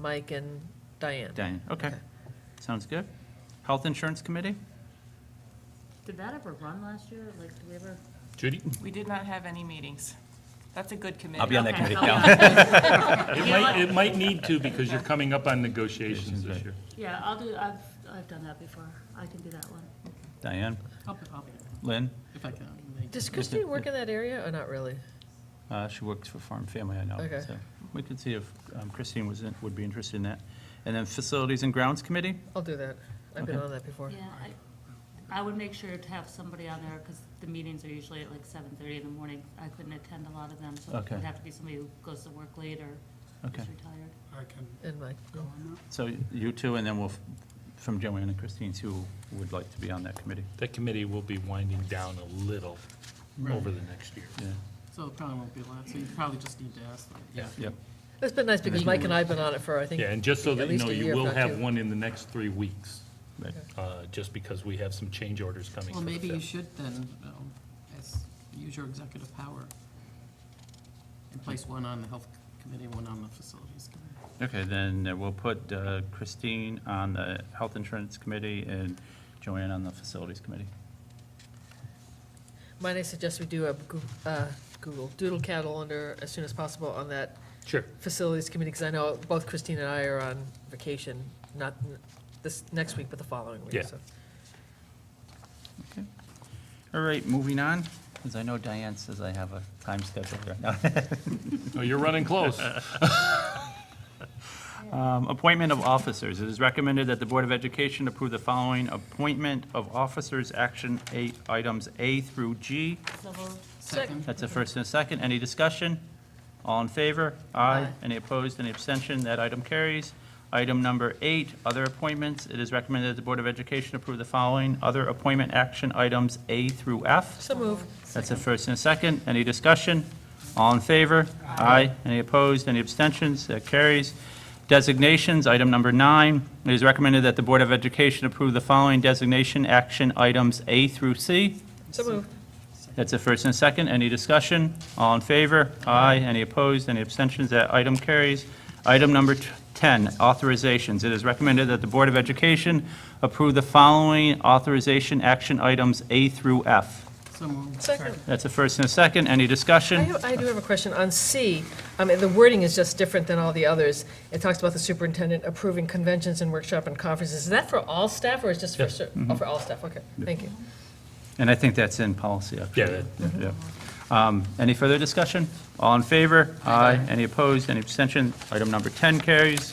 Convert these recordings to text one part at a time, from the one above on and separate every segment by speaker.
Speaker 1: Mike and Diane.
Speaker 2: Diane, okay. Sounds good. Health Insurance Committee?
Speaker 3: Did that ever run last year? Like, did we ever?
Speaker 4: Judy?
Speaker 5: We did not have any meetings. That's a good committee.
Speaker 6: I'll be on that committee,
Speaker 3: Okay.
Speaker 6: Cal.
Speaker 4: It might, it might need to because you're coming up on negotiations this year.
Speaker 3: Yeah, I'll do, I've, I've done that before. I can do that one.
Speaker 2: Diane,
Speaker 7: I'll be popping
Speaker 2: Lynn,
Speaker 7: if I can. like-
Speaker 1: Does Christine work in that area or not really?
Speaker 2: uh, she works for Farm Family, I know.
Speaker 1: Okay.
Speaker 2: so We could see if um, Christine was, in- would be interested in that. And then Facilities and Grounds Committee?
Speaker 1: I'll do that. I've been
Speaker 2: Okay.
Speaker 1: on that before.
Speaker 3: Yeah, I, I would make sure to have somebody on there because the meetings are usually at like seven thirty in the morning. I couldn't attend a lot of them, so
Speaker 2: Okay.
Speaker 3: it'd have to be somebody who goes to work late or
Speaker 2: Okay.
Speaker 3: is retired.
Speaker 7: I can
Speaker 1: And Mike,
Speaker 7: go on
Speaker 2: So you two, and then we'll, f- from Joanne and Christine, who would like to be on that committee.
Speaker 4: That committee will be winding down a little
Speaker 7: Right.
Speaker 4: over the next year.
Speaker 2: Yeah,
Speaker 7: that. So it probably won't be a lot, so you probably just need to ask them.
Speaker 4: Yeah.
Speaker 2: yep,
Speaker 1: it's been nice because Mike and I have been on it for, I think.
Speaker 4: Yeah, and just so
Speaker 1: at
Speaker 4: that you
Speaker 1: least a
Speaker 4: know,
Speaker 1: year,
Speaker 4: you
Speaker 1: if
Speaker 4: will
Speaker 1: not
Speaker 4: have
Speaker 1: two.
Speaker 4: one in the next three weeks,
Speaker 2: right.
Speaker 4: uh, just because we have some change orders coming
Speaker 7: Well,
Speaker 4: for the
Speaker 7: maybe you
Speaker 4: fifth.
Speaker 7: should then, um, as, use your executive power and place one on the health committee, one on the facilities committee.
Speaker 2: Okay, then uh, we'll put uh, Christine on the Health Insurance Committee and Joanne on the Facilities Committee.
Speaker 1: Might I suggest we do a Goo- uh, Google Doodle calendar as soon as possible on that
Speaker 4: Sure.
Speaker 1: facilities committee? Because I know both Christine and I are on vacation, not n- this next week, but the following week.
Speaker 4: Yeah.
Speaker 1: so.
Speaker 2: Okay. All right, moving on, because I know Diane says I have a time schedule right now.
Speaker 4: Oh, you're running close.
Speaker 2: Um, Appointment of officers. It is recommended that the Board of Education approve the following appointment of officers, action eight, items A through G.
Speaker 3: So moved.
Speaker 1: Second.
Speaker 2: That's a first and a second. Any discussion? All in favor? Aye. Any opposed? Any abstention? That item carries. Item number eight, other appointments. It is recommended that the Board of Education approve the following other appointment action items A through F.
Speaker 1: So move.
Speaker 2: That's a first and a second. Any discussion? All in favor? Aye. Any opposed? Any abstentions? That carries. Designations, item number nine. It is recommended that the Board of Education approve the following designation action items A through C.
Speaker 1: So move.
Speaker 2: That's a first and a second. Any discussion? All in favor? Aye. Any opposed? Any abstentions? That item carries. Item number t- 10, authorizations. It is recommended that the Board of Education approve the following authorization action items A through F.
Speaker 7: So moved.
Speaker 1: Second.
Speaker 2: That's a first and a second. Any
Speaker 1: I
Speaker 2: discussion?
Speaker 1: have- I do have a question on C. I mean, the wording is just different than all the others. It talks about the superintendent approving conventions and workshop and conferences. Is that for all staff or is just for
Speaker 4: Yes. Mm-hmm.
Speaker 1: cer- Oh, for all staff, okay, thank you.
Speaker 2: And I think that's in policy, actually.
Speaker 4: Yeah, that-
Speaker 2: Yeah. Um, Any further discussion? All in favor? Aye. Any opposed? Any abstention? Item number 10 carries.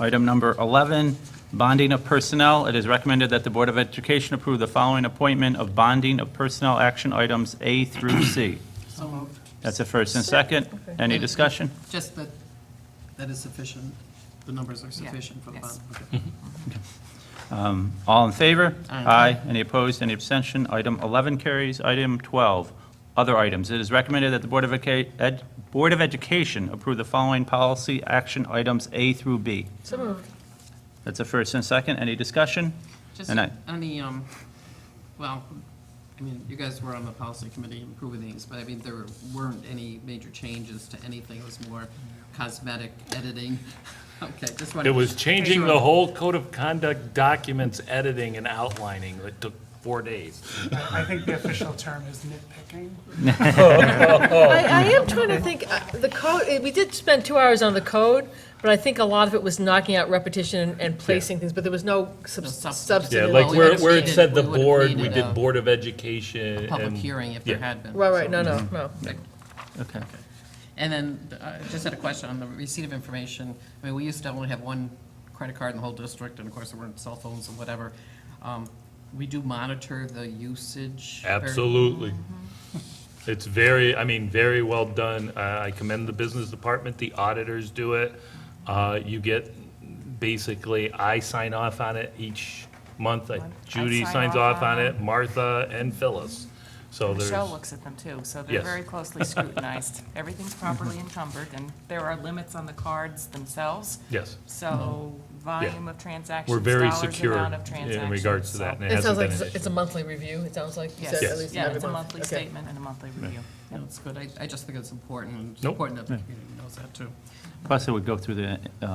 Speaker 2: Item number 11, bonding of personnel. It is recommended that the Board of Education approve the following appointment of bonding of personnel action items A through C.
Speaker 7: So moved.
Speaker 2: That's a first and second.
Speaker 1: Okay.
Speaker 2: Any discussion?
Speaker 7: Just that, that is sufficient, the numbers are sufficient for the
Speaker 5: yes.
Speaker 7: bond. Okay.
Speaker 2: Um, All in favor?
Speaker 7: Aye.
Speaker 2: Any opposed, any abstention? Item 11 carries. Item 12, other items. It is recommended that the Board of Educa- Ed- Board of Education approve the following policy action items A through B.
Speaker 1: So
Speaker 5: Oh.
Speaker 1: moved.
Speaker 2: That's a first and second. Any discussion?
Speaker 7: Just
Speaker 2: And I-
Speaker 7: on the, um, well, I mean, you guys were on the policy committee improving these, but I mean, there weren't any major changes to anything. It was more cosmetic editing. Okay, just wanted.
Speaker 4: It was changing the
Speaker 7: Sure.
Speaker 4: whole code of conduct documents, editing and outlining. It took four days.
Speaker 8: I think the official term is nitpicking.
Speaker 1: I, I am trying to think, uh, the code, eh, we did spend two hours on the code, but I think a lot of it was knocking out repetition and- and placing things, but there was no sub-
Speaker 7: No substance.
Speaker 4: Yeah,
Speaker 1: substantive.
Speaker 7: Well,
Speaker 4: like
Speaker 7: we
Speaker 4: where,
Speaker 7: would've
Speaker 4: where it
Speaker 7: needed-
Speaker 4: said the
Speaker 7: we would've
Speaker 4: board, we
Speaker 7: needed
Speaker 4: did
Speaker 7: a
Speaker 4: Board of Education.
Speaker 7: Public
Speaker 4: and-
Speaker 7: hearing if there
Speaker 4: yeah.
Speaker 7: had been.
Speaker 1: Right,
Speaker 7: so-
Speaker 1: right, no,
Speaker 4: Mm-hmm.
Speaker 1: no, no.
Speaker 2: Okay.
Speaker 7: And then, uh, just had a question on the receipt of information. I mean, we used to only have one credit card in the whole district, and of course, there weren't cell phones and whatever. Um, We do monitor the usage. or-
Speaker 4: Absolutely. It's very, I mean, very well done. I I commend the business department, the auditors do it. Uh, You get, basically, I sign off on it each month. I- Judy
Speaker 5: sign
Speaker 4: signs
Speaker 5: off
Speaker 4: off on
Speaker 5: on
Speaker 4: it, Martha and Phyllis. So there's,
Speaker 5: Michelle looks at them too, so they're
Speaker 4: Yes. Mm-hmm.
Speaker 5: very closely scrutinized. Everything's properly encumbered, and there are limits on the cards themselves.
Speaker 4: yes,
Speaker 5: So volume of transactions,
Speaker 4: Mm-hmm. we're very
Speaker 5: dollars,
Speaker 4: secure
Speaker 5: amount of
Speaker 4: in
Speaker 5: transactions.
Speaker 4: regards to that. and
Speaker 1: It
Speaker 4: hasn't
Speaker 1: sounds like
Speaker 4: been
Speaker 1: it's
Speaker 4: an
Speaker 1: a- it's a monthly review, it sounds like. you
Speaker 5: Yes,
Speaker 1: said, at
Speaker 7: Yes.
Speaker 1: least
Speaker 5: yeah,
Speaker 1: every
Speaker 5: it's a
Speaker 1: month.
Speaker 5: monthly
Speaker 1: Okay.
Speaker 5: statement and a monthly review.
Speaker 7: No, it's good. I, I just think it's important. It's
Speaker 4: Nope.
Speaker 7: important that the community knows knows that too.
Speaker 2: Plus, it would go through the uh,